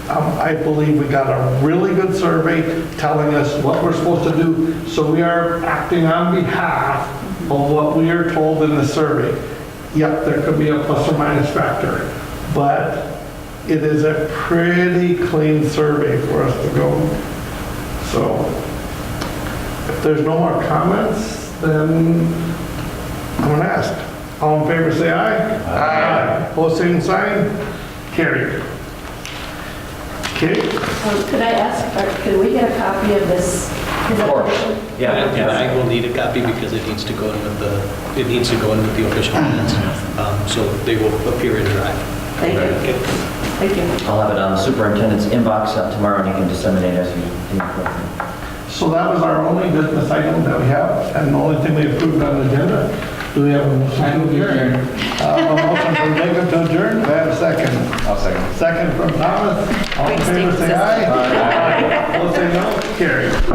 Um, I believe we got a really good survey telling us what we're supposed to do, so we are acting on behalf of what we are told in the survey. Yep, there could be a plus or minus factor, but it is a pretty clean survey for us to go. So if there's no more comments, then I'm going to ask. All in favor, say aye. Aye. Pose same sign, carried. Okay, Um, Could I ask, or could we get a copy of this? Of course. Yeah, And and yeah. I will need a copy because it needs to go in with the, it needs to go in with the official minutes. Um, So they will appear in drive. Mm-hmm. Thank you, Okay. thank you. I'll have it on the superintendent's inbox uh, tomorrow, and you can disseminate as you think appropriate. so that was our only business item that we have, and the only thing we approved on the agenda. Do we have a motion to adjourn? Uh, A motion from Jacob to adjourn, do I have a second? I'll second. Second from Thomas, all in Wait, favor, stay say aye. Aye. Opposed, say no, carried.